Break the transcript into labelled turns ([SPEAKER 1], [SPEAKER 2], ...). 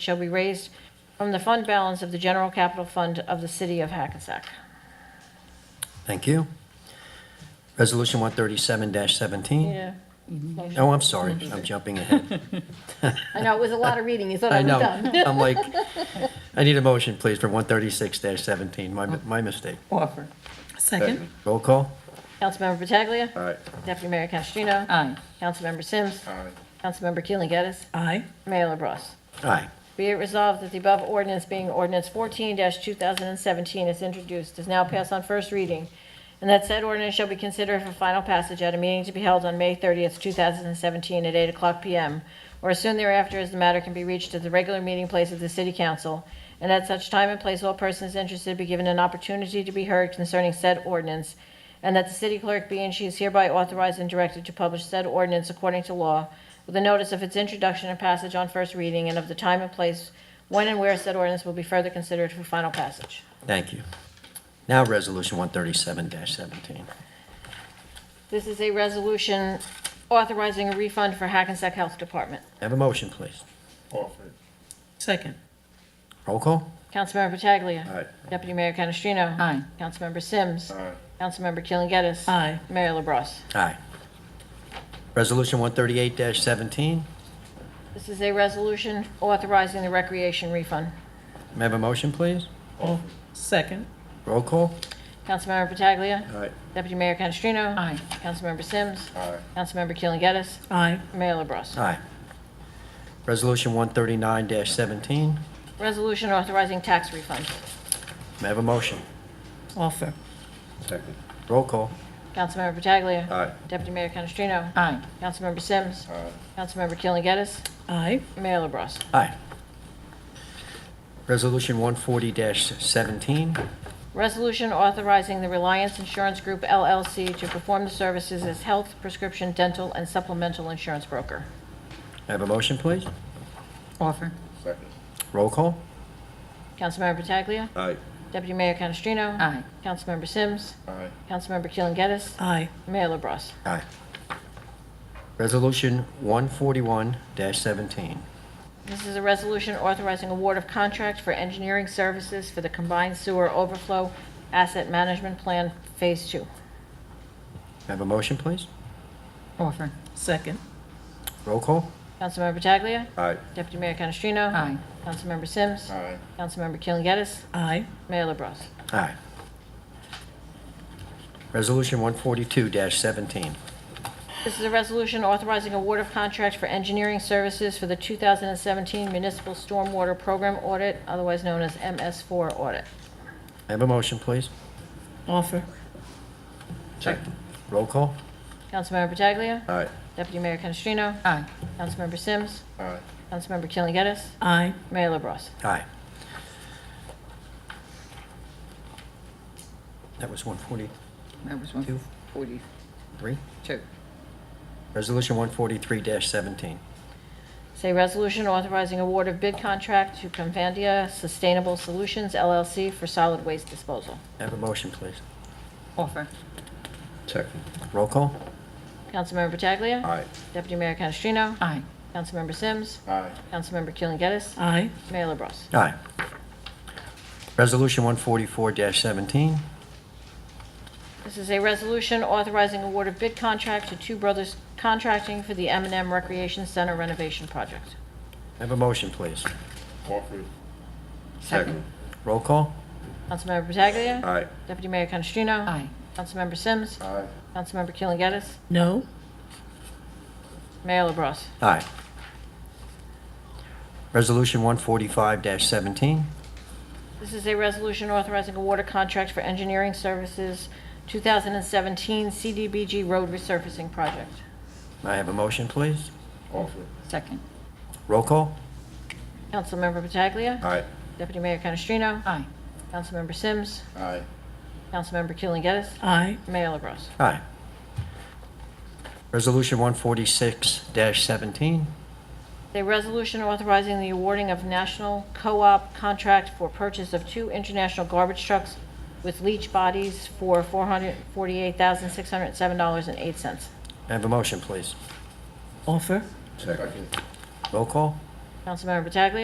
[SPEAKER 1] shall be raised from the fund balance of the general capital fund of the city of Hackensack.
[SPEAKER 2] Thank you. Resolution 137-17.
[SPEAKER 1] Yeah,
[SPEAKER 2] Oh, I'm sorry, I'm jumping ahead.
[SPEAKER 1] I know, it was a lot of reading, you thought
[SPEAKER 2] I
[SPEAKER 1] I was
[SPEAKER 2] know,
[SPEAKER 1] done.
[SPEAKER 2] I'm like, I need a motion, please, for 136-17, my my mistake.
[SPEAKER 3] Offer.
[SPEAKER 4] Second.
[SPEAKER 2] Roll call?
[SPEAKER 1] Councilmember Pataglia.
[SPEAKER 4] Aye.
[SPEAKER 1] Deputy Mayor Canestrino.
[SPEAKER 3] Aye.
[SPEAKER 1] Councilmember Sims.
[SPEAKER 4] Aye.
[SPEAKER 1] Councilmember Keeling Geddes.
[SPEAKER 3] Aye.
[SPEAKER 1] Mayor LaBrus.
[SPEAKER 2] Aye.
[SPEAKER 1] Be it resolved that the above ordinance being ordinance 14-2017 is introduced, is now passed on first reading, and that said ordinance shall be considered for final passage at a meeting to be held on May 30th, 2017, at 8 o'clock p.m., or as soon thereafter as the matter can be reached at the regular meeting place of the city council, and at such time and place all persons interested be given an opportunity to be heard concerning said ordinance, and that the city clerk be and she is hereby authorized and directed to publish said ordinance according to law with a notice of its introduction and passage on first reading and of the time and place when and where said ordinance will be further considered for final passage.
[SPEAKER 2] Thank you. Now, Resolution 137-17.
[SPEAKER 1] This is a resolution authorizing a refund for Hackensack Health Department.
[SPEAKER 2] Have a motion, please.
[SPEAKER 4] Offer.
[SPEAKER 3] Second.
[SPEAKER 2] Roll call?
[SPEAKER 1] Councilmember Pataglia.
[SPEAKER 4] Aye.
[SPEAKER 1] Deputy Mayor Canestrino.
[SPEAKER 3] Aye.
[SPEAKER 1] Councilmember Sims.
[SPEAKER 4] Aye.
[SPEAKER 1] Councilmember Keeling Geddes.
[SPEAKER 3] Aye.
[SPEAKER 1] Mayor LaBrus.
[SPEAKER 2] Aye. Resolution 138-17,
[SPEAKER 1] This is a resolution authorizing the recreation refund.
[SPEAKER 2] may I have a motion, please?
[SPEAKER 4] Offer.
[SPEAKER 3] Second.
[SPEAKER 2] Roll call?
[SPEAKER 1] Councilmember Pataglia.
[SPEAKER 4] Aye.
[SPEAKER 1] Deputy Mayor Canestrino.
[SPEAKER 3] Aye.
[SPEAKER 1] Councilmember Sims.
[SPEAKER 4] Aye.
[SPEAKER 1] Councilmember Keeling Geddes.
[SPEAKER 3] Aye.
[SPEAKER 1] Mayor LaBrus.
[SPEAKER 2] Aye. Resolution 139-17,
[SPEAKER 1] Resolution authorizing tax refunds.
[SPEAKER 2] may I have a motion?
[SPEAKER 3] Offer.
[SPEAKER 4] Second.
[SPEAKER 2] Roll call?
[SPEAKER 1] Councilmember Pataglia.
[SPEAKER 4] Aye.
[SPEAKER 1] Deputy Mayor Canestrino.
[SPEAKER 3] Aye.
[SPEAKER 1] Councilmember Sims.
[SPEAKER 4] Aye.
[SPEAKER 1] Councilmember Keeling Geddes.
[SPEAKER 3] Aye.
[SPEAKER 1] Mayor LaBrus.
[SPEAKER 2] Aye. Resolution 140-17,
[SPEAKER 1] Resolution authorizing the Reliance Insurance Group LLC to perform the services as health, prescription, dental, and supplemental insurance broker.
[SPEAKER 2] I have a motion, please.
[SPEAKER 3] Offer.
[SPEAKER 4] Second.
[SPEAKER 2] Roll call?
[SPEAKER 1] Councilmember Pataglia.
[SPEAKER 4] Aye.
[SPEAKER 1] Deputy Mayor Canestrino.
[SPEAKER 3] Aye.
[SPEAKER 1] Councilmember Sims.
[SPEAKER 4] Aye.
[SPEAKER 1] Councilmember Keeling Geddes.
[SPEAKER 3] Aye.
[SPEAKER 1] Mayor LaBrus.
[SPEAKER 2] Aye. Resolution 141-17,
[SPEAKER 1] This is a resolution authorizing award of contract for engineering services for the combined sewer overflow asset management plan, Phase 2.
[SPEAKER 2] I have a motion, please.
[SPEAKER 3] Offer. Second.
[SPEAKER 2] Roll call?
[SPEAKER 1] Councilmember Pataglia.
[SPEAKER 4] Aye.
[SPEAKER 1] Deputy Mayor Canestrino.
[SPEAKER 3] Aye.
[SPEAKER 1] Councilmember Sims.
[SPEAKER 4] Aye.
[SPEAKER 1] Councilmember Keeling Geddes.
[SPEAKER 3] Aye.
[SPEAKER 1] Mayor LaBrus.
[SPEAKER 2] Aye. Resolution 142-17,
[SPEAKER 1] This is a resolution authorizing award of contract for engineering services for the 2017 Municipal Stormwater Program Audit, otherwise known as MS4 Audit.
[SPEAKER 2] I have a motion, please.
[SPEAKER 3] Offer.
[SPEAKER 4] Second.
[SPEAKER 2] Roll call?
[SPEAKER 1] Councilmember Pataglia.
[SPEAKER 4] Aye.
[SPEAKER 1] Deputy Mayor Canestrino.
[SPEAKER 3] Aye.
[SPEAKER 1] Councilmember Sims.
[SPEAKER 4] Aye.
[SPEAKER 1] Councilmember Keeling Geddes.
[SPEAKER 3] Aye.
[SPEAKER 1] Mayor LaBrus.
[SPEAKER 2] Aye. That was 143.
[SPEAKER 3] That was
[SPEAKER 2] Two.
[SPEAKER 3] one forty-two.
[SPEAKER 2] Resolution 143-17,
[SPEAKER 1] It's a resolution authorizing award of bid contract to Convandia Sustainable Solutions LLC for solid waste disposal.
[SPEAKER 2] I have a motion, please.
[SPEAKER 3] Offer.
[SPEAKER 4] Second.
[SPEAKER 2] Roll call?
[SPEAKER 1] Councilmember Pataglia.
[SPEAKER 4] Aye.
[SPEAKER 1] Deputy Mayor Canestrino.
[SPEAKER 3] Aye.
[SPEAKER 1] Councilmember Sims.
[SPEAKER 4] Aye.
[SPEAKER 1] Councilmember Keeling Geddes.
[SPEAKER 3] Aye.
[SPEAKER 1] Mayor LaBrus.
[SPEAKER 2] Aye. Resolution 144-17,
[SPEAKER 1] This is a resolution authorizing award of bid contract to Two Brothers Contracting for the m and M Recreation Center renovation project.
[SPEAKER 2] I have a motion, please.
[SPEAKER 4] Offer.
[SPEAKER 3] Second.
[SPEAKER 2] Roll call?
[SPEAKER 1] Councilmember Pataglia.
[SPEAKER 4] Aye.
[SPEAKER 1] Deputy Mayor Canestrino.
[SPEAKER 3] Aye.
[SPEAKER 1] Councilmember Sims.
[SPEAKER 4] Aye.
[SPEAKER 1] Councilmember Keeling Geddes.
[SPEAKER 3] No.
[SPEAKER 1] Mayor LaBrus.
[SPEAKER 2] Aye. Resolution 145-17,
[SPEAKER 1] This is a resolution authorizing a water contract for engineering services, 2017 CDBG road resurfacing project.
[SPEAKER 2] I have a motion, please.
[SPEAKER 4] Offer.
[SPEAKER 3] Second.
[SPEAKER 2] Roll call?
[SPEAKER 1] Councilmember Pataglia.
[SPEAKER 4] Aye.
[SPEAKER 1] Deputy Mayor Canestrino.
[SPEAKER 3] Aye.
[SPEAKER 1] Councilmember Sims.
[SPEAKER 4] Aye.
[SPEAKER 1] Councilmember Keeling Geddes.
[SPEAKER 3] Aye.
[SPEAKER 1] Mayor LaBrus.
[SPEAKER 2] Aye. Resolution 146-17,
[SPEAKER 1] A resolution authorizing the awarding of national co-op contract for purchase of two international garbage trucks with leach bodies for $448,607.08.
[SPEAKER 2] I have a motion, please.
[SPEAKER 3] Offer.
[SPEAKER 4] Second.
[SPEAKER 2] Roll call?
[SPEAKER 1] Councilmember Pataglia.